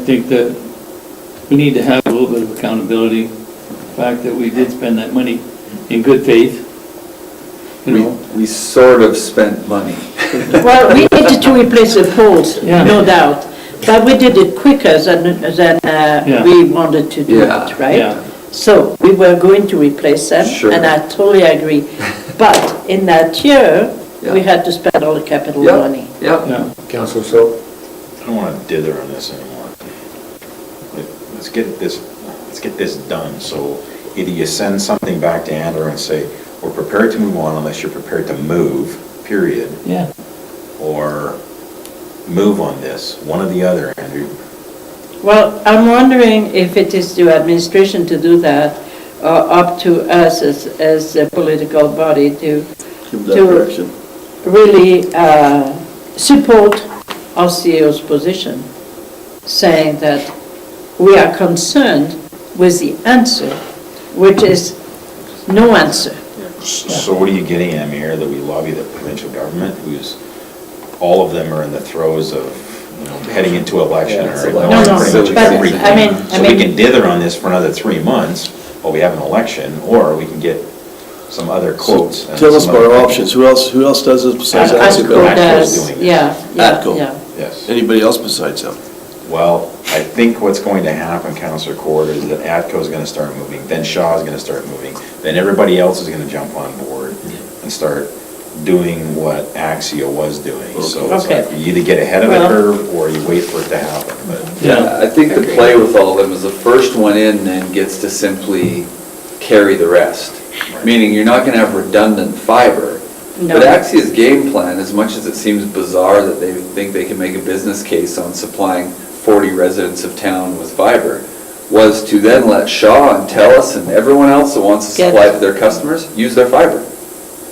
I think that we need to have a little bit of accountability, the fact that we did spend that money in good faith, you We, know? we sort of spent money. Well, we needed to replace the poles, Yeah. no doubt, but we did it quicker than, than Yeah. uh, we wanted to do Yeah. it, Yeah. right? So we were going to replace them, Sure. and I totally agree. But in that year, we Yeah. had to spend all the capital Yeah, money. Yeah, Yeah, Council, so I don't want to dither on this anymore. Let- Let's get this, let's get this done, so either you send something back to Andrew and say, we're prepared to move on unless you're prepared to move, period, yeah, or move on this, one or the other, Andrew. Well, I'm wondering if it is to administration to do that, or up to us as, as a political body to. Give that direction. Really uh, support our CEO's position, saying that we are concerned with the answer, which is no answer. S- So what are you getting at, Mayor, that we lobby the provincial government, who's, all of them are in the throes of, you know, heading into election Yeah, it's or. election. No, no, pretty much but, I everything. mean- I So we mean- can dither on this for another three months, while we have an election, or we can get some other quotes. and tell us some about our other- options. Who else, who else does this besides That's ATCO Ad- ATCO Atco? Ad- does, doing this. Yeah, yeah, Adco. yeah. Yes. Anybody else besides them? Well, I think what's going to happen, Counselor Court, is that ATCO's gonna start moving, then Shaw's gonna start moving, then everybody else is gonna jump on board and start doing what Axia was doing. So it's Okay. like, you either get ahead of the Well- curve or you wait for it to happen, but yeah, yeah, I think the play with all of them is the first one in then gets to simply carry the rest. Meaning you're not gonna have redundant fiber. No. But Axia's game plan, as much as it seems bizarre that they think they can make a business case on supplying forty residents of town with fiber, was to then let Shaw and Telus and everyone else that wants to Get- supply to their customers, use their fiber.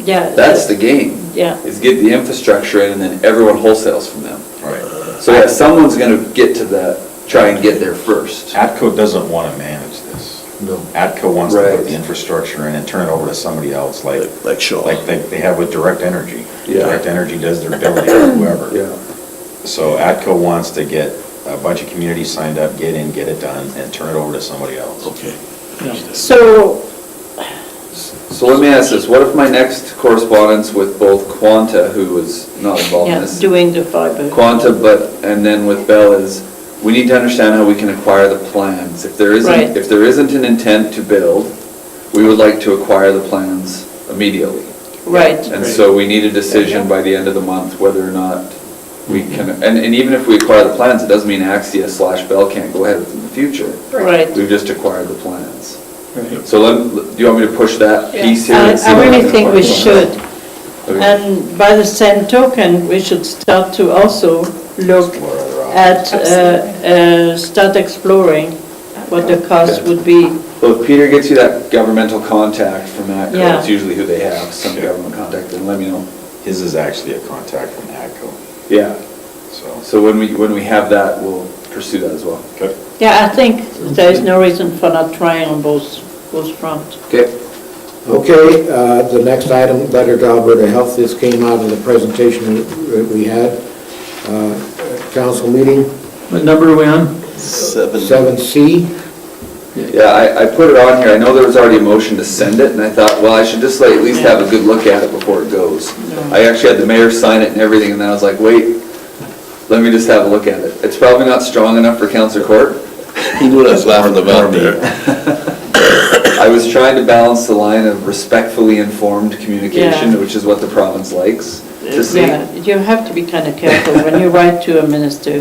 Yeah. uh, That's the game. Yeah. Is get the infrastructure in and then everyone wholesales from them. Right. So yeah, someone's gonna get to the, try and get there first. ATCO doesn't want to manage this. No. ATCO wants to put Right. the infrastructure in and turn it over to somebody else, like, Like Shaw. like they they have with Direct Energy. Yeah. Direct Energy does their billing or whoever. Yeah. So ATCO wants to get a bunch of communities signed up, get in, get it done, and turn it over to somebody else. Okay. yeah. So So let me ask this, what if my next correspondence with both Quanta, who was not involved in Yeah, this, doing the fiber. Quanta, but, and then with Bell is, we need to understand how we can acquire the plans. If there Right. isn't, if there isn't an intent to build, we would like to acquire the plans immediately. Right, And so we need a decision by the end of the month whether or not we Mm-hmm. can, and, and even if we acquire the plans, it doesn't mean Axia slash Bell can't go ahead with them in the future. right. We've just acquired the plans. Right. So let, do you want me to push that piece here? Uh, I and see I what really can think we find? should. Um, Okay. And by the same token, we should start to also look Explore other options. at, uh, uh, start exploring what the cost would be. Well, if Peter gets you that governmental contact from that, Yeah. that's usually who they have, some Sure. government contact, then let me know. His is actually a contact from ATCO, Yeah, so. so when we, when we have that, we'll pursue that as well. Okay. Yeah, I think there is no reason for not trying on both, both fronts. Okay. Okay, uh, the next item, letter to Alberta Health, this came out of the presentation that we had, uh, at council meeting, What number are we on? Seven. 7C. Yeah, I, I put it on here, I know there was already a motion to send it, and I thought, well, I should just like at least have a good look at it before it goes. I actually had the mayor sign it and everything, and then I was like, wait, let me just have a look at it. It's probably not strong enough for Counselor Court. Who knew that's laughing about there? I was trying to balance the line of respectfully informed Yeah. communication, which is what the province likes to see. Uh, Yeah, you have to be kind of careful when you write to a minister.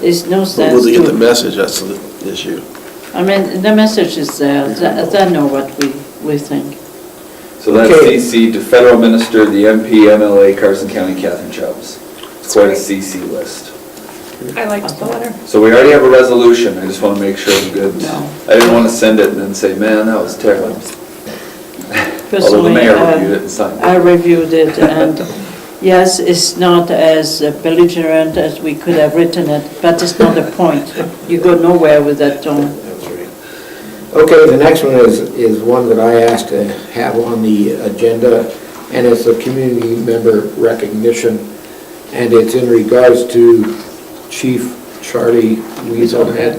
There's no But sense will they get the to, message? That's the issue. I mean, the message is there, they they know what we, we think. So that's Okay. CC to federal minister, the MP, MLA, Carson County, Catherine Chubbs. It's quite a CC list. I liked the letter. So we already have a resolution, I just want to make sure I'm good. No. I didn't want to send it and then say, man, that was terrible. Although the Personally, mayor uh, reviewed it and signed I it. reviewed it, and yes, it's not as belligerent as we could have written it, but it's not the point. You go nowhere with that tone. Okay, the next one is, is one that I asked to have on the agenda, and it's a community member recognition, and it's in regards to Chief Charlie Weasel had